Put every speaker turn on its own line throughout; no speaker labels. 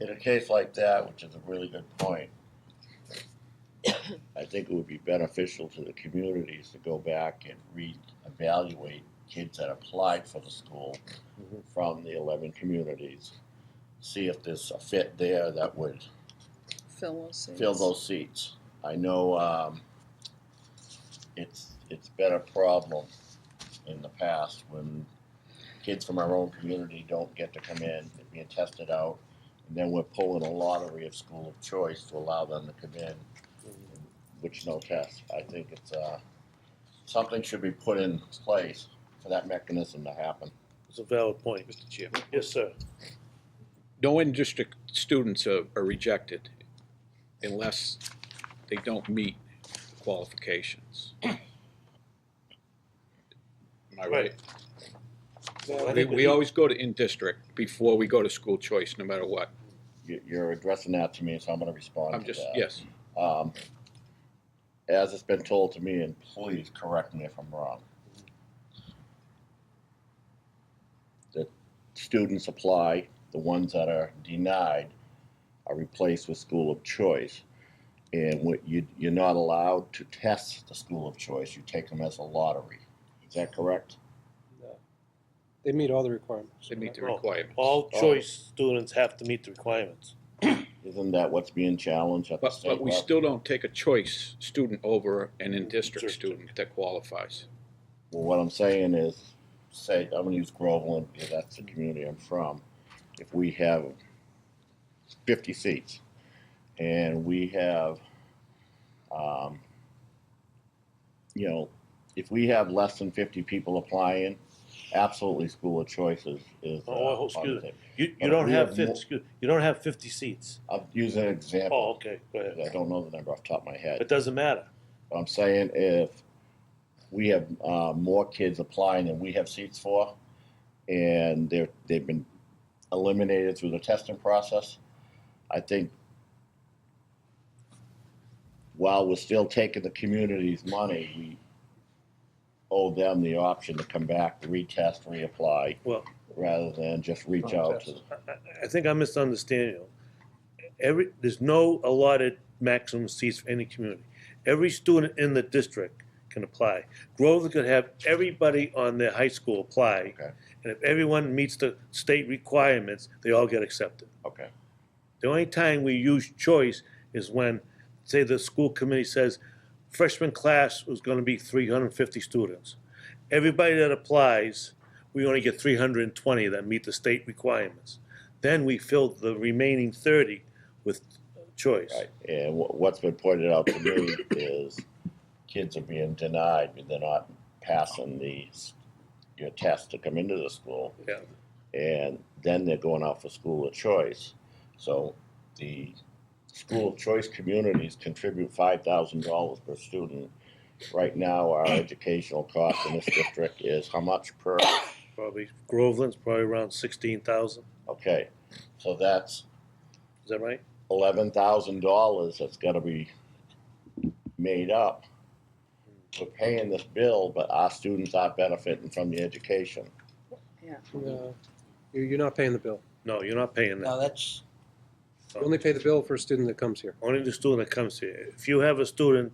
in a case like that, which is a really good point, I think it would be beneficial to the communities to go back and reevaluate kids that applied for the school
Mhm.
from the eleven communities. See if there's a fit there that would
Fill those seats.
fill those seats. I know um, it's it's been a problem in the past when kids from our own community don't get to come in, they're being tested out, and then we're pulling a lottery of school of choice to allow them to come in, which no test. I think it's uh, something should be put in place for that mechanism to happen.
It's a valid point.
Mr. Chair.
Yes, sir.
No in-district students are, are rejected unless they don't meet qualifications. Am I right? We, we always go to in-district before we go to school choice, no matter what.
You- You're addressing that to me, so I'm going to respond
I'm
to
just,
that.
yes,
Um, as it's been told to me, and please correct me if I'm wrong, that students apply, the ones that are denied are replaced with school of choice. And what you, you're not allowed to test the school of choice, you take them as a lottery. Is that correct?
They meet all the requirements.
they meet the
Oh,
requirements.
All choice students have to meet the requirements.
Isn't that what's being challenged at the
But,
state
but we
level?
still don't take a choice student over an in-district
District.
student that qualifies.
Well, what I'm saying is, say, I'm gonna use Groveland, because that's the community I'm from. If we have fifty seats, and we have, um, you know, if we have less than fifty people applying, absolutely school of choice is, is. uh,
Oh, excuse
on the
me.
table.
You, you
But
don't
we
have
have
fifty,
more-
excuse- you don't have fifty seats.
I'll use an
Oh,
example,
okay, go ahead.
'cause I don't know the number off the top of my head.
It doesn't matter.
What I'm saying if we have uh, more kids applying than we have seats for, and they're they've been eliminated through the testing process, I think while we're still taking the community's money, we owe them the option to come back, retest, reapply,
Well-
rather than just reach out to.
I, I- I think I misunderstand you. Every, there's no allotted maximum seats for any community. Every student in the district can apply. Groveland could have everybody on their high school apply.
Okay.
And if everyone meets the state requirements, they all get accepted.
Okay,
The only time we use choice is when, say, the school committee says freshman class was gonna be three hundred and fifty students. Everybody that applies, we only get three hundred and twenty that meet the state requirements. Then we fill the remaining thirty with choice.
right. And wha- what's been pointed out to me is kids are being denied, but they're not passing the, s- your test to come into the school.
Yeah.
And then they're going out for school of choice. So the school of choice communities contribute five thousand dollars per student. Right now, our educational cost in this district is how much per,
Probably Groveland's probably around sixteen thousand,
okay, so that's
is that right?
eleven thousand dollars that's gotta be made up. We're paying this bill, but our students are benefiting from the education.
No, Mm-hmm. You're, you're not paying the bill.
No, you're not paying that.
No, that's,
You only pay the bill for a student that comes here.
Only the student that comes here. If you have a student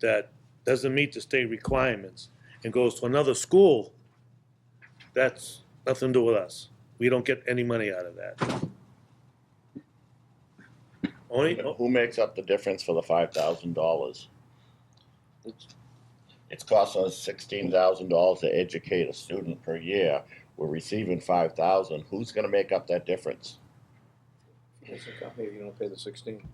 that doesn't meet the state requirements and goes to another school, that's nothing to do with us. We don't get any money out of that. Only, oh,
Who makes up the difference for the five thousand dollars? It's costing us sixteen thousand dollars to educate a student per year. We're receiving five thousand. Who's gonna make up that difference?
he doesn't come here, you don't pay the sixteen.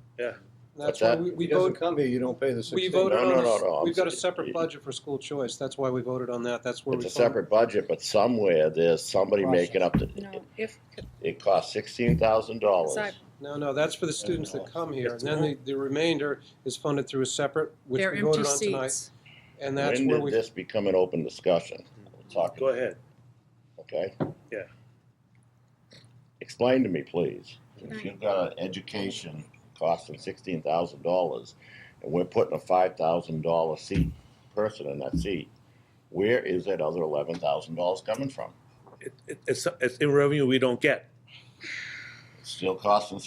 That's why
that-
we,
He
we
doesn't
voted,
come here, you don't pay the
we
sixteen.
voted
No, no,
on,
no,
this-
no, I'm
we've got a
saying-
separate budget for school choice. That's why we voted on that. That's where we
It's a
voted.
separate budget, but somewhere there's somebody making up the,
No, if,
it costs sixteen thousand dollars.
Sorry.
No, no, that's for the students that come here. And then the, the remainder is funded through a separate, which
they're
we
empty
voted on tonight.
seats.
And that's
When
where
did
we,
this become an open discussion? We're Talking,
go ahead.
okay?
Yeah.
Explain to me, please. If you've got an education costing sixteen thousand dollars, and we're putting a five thousand dollar seat, person in that seat, where is that other eleven thousand dollars coming from?
It, it, it's, it's revenue we don't get.
It's Still costing